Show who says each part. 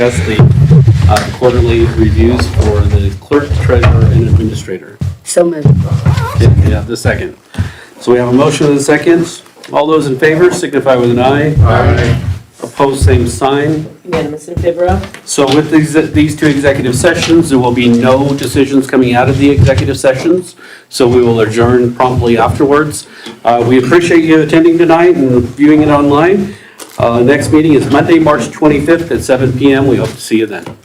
Speaker 1: discuss the uh, quarterly reviews for the clerk, treasurer, and administrator.
Speaker 2: So moved.
Speaker 1: Did we have the second? So we have a motion and a second. All those in favor signify with an aye. Aye. Opposed, same sign.
Speaker 3: Unanimous in favor of?
Speaker 1: So with these, these two executive sessions, there will be no decisions coming out of the executive sessions, so we will adjourn promptly afterwards. Uh, We appreciate you attending tonight and viewing it online. Uh, Next meeting is Monday, March 25th at 7 PM. We hope to see you then.